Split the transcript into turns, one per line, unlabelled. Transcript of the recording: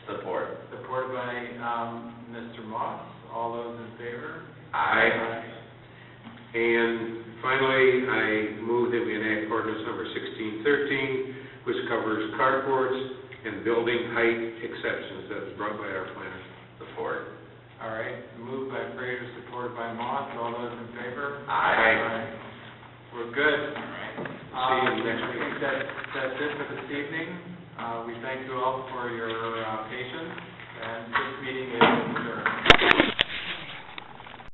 um, Mr. Moss. All those in favor?
Aye. And finally, I move that we enact ordinance number 1613, which covers carports and building height exceptions that was brought by our planner before.
All right, moved by Fraser, supported by Moss. All those in favor?
Aye.
We're good.
See you next
Um, I
week.
think that, that's it for this evening. Uh, we thank you all for your, uh, patience, and this meeting is adjourned.